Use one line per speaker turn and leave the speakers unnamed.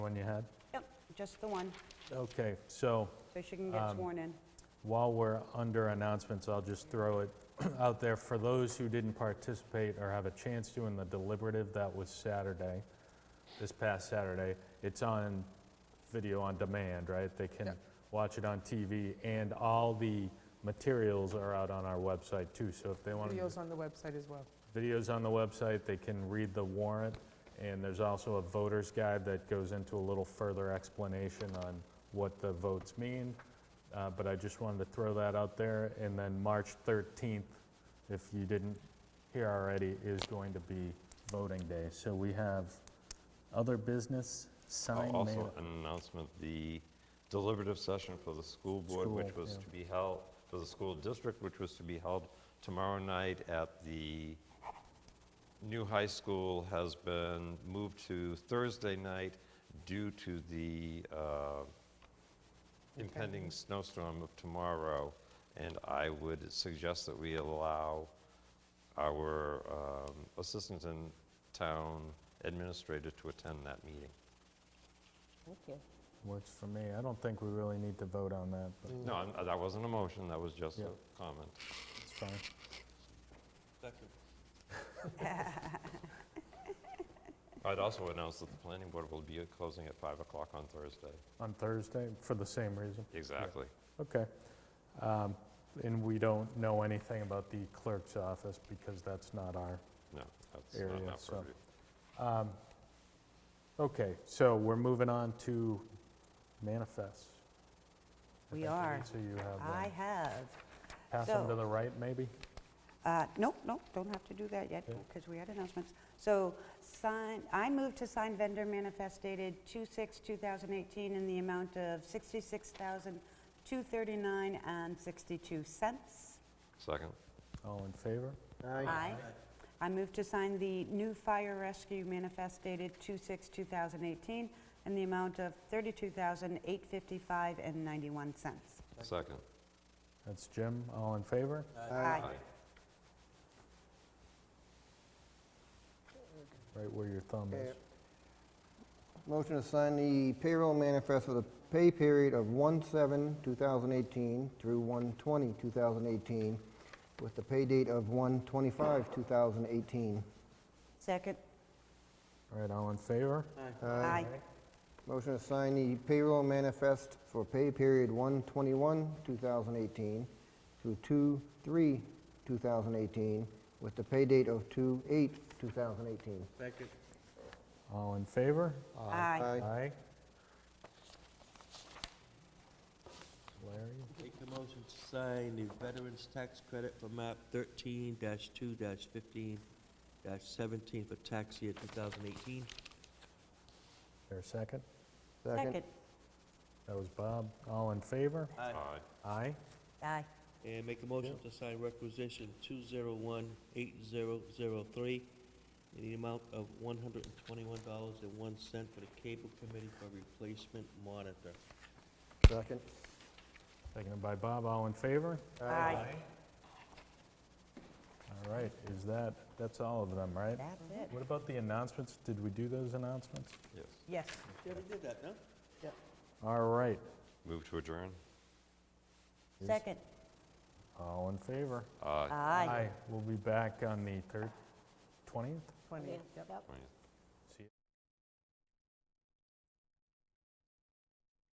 one you had?
Yep, just the one,
Okay, so
so she can get sworn in.
while we're under announcements, I'll just throw it out there. For those who didn't participate or have a chance to in the deliberative, that was Saturday, this past Saturday. It's on video on demand, right? They can watch it on TV, and all the materials are out on our website too, so if they want to...
Videos on the website as well.
videos on the website, they can read the warrant, and there's also a voter's guide that goes into a little further explanation on what the votes mean, Uh, but I just wanted to throw that out there, and then March 13th, if you didn't hear already, is going to be voting day. So we have other business, sign man.
Oh, Also, an announcement, the deliberative session for the school board, which
School,
was
yeah.
to be held, for the school district, which was to be held tomorrow night at the new high school, has been moved to Thursday night due to the uh, impending snowstorm of tomorrow. And I would suggest that we allow our um, assistant and town administrator to attend that meeting.
Thank you.
Works for me. I don't think we really need to vote on that, but
No, I'm- uh, that wasn't a motion, that was just
Yeah.
a comment.
it's fine.
I'd also announce that the planning board will be closing at 5 o'clock on Thursday.
On Thursday, for the same reason.
Exactly.
Okay. Um, And we don't know anything about the clerk's office because that's not our,
No, that's
Area,
not an
so-
appropriate.
okay, so we're moving on to manifests. I
We
think,
are.
Denise, So you have,
I
one.
have,
pass them to
so-
the right, maybe?
uh, nope, nope, don't have to do that yet,
Okay.
because we had announcements. So sign, I move to sign vendor manifest dated 2/6/2018 in the amount of $66,239.62.
Second,
All in favor?
Aye. I move to sign the new fire rescue manifest dated 2/6/2018 in the amount of $32,855.91.
second.
That's Jim, all in favor?
Aye.
Right where your thumb is.
Okay. Motion to sign the payroll manifest for the pay period of 1/7/2018 through 1/20/2018, with the pay date of 1/25/2018.
Second.
All right, all in favor?
Aye.
Motion to sign the payroll manifest for pay period 1/21/2018 through 2/3/2018, with the pay date of 2/8/2018.
All in favor?
Aye.
Aye. Larry,
Make the motion to sign the Veterans Tax Credit for map thirteen two fifteen seventeen for tax year two thousand eighteen.
there a second?
Second.
That was Bob, all in favor?
Aye.
Aye?
Aye.
And make a motion to sign requisition two zero one eight zero zero three in the amount of one hundred and twenty-one dollars and one cent for the cable committee for replacement monitor.
Second.
Seconded by Bob, all in favor?
Aye.
All right, is that, that's all of them, right?
That's it.
What about the announcements? Did we do those announcements?
Yes.
Yes.
Yeah, we did that, no?
All right,
Move to adjourn?
Second.
all in favor?
Aye.
Aye.
We'll be back on the third, 20th?
Yeah,
20, yep.
yep.
Twentieth.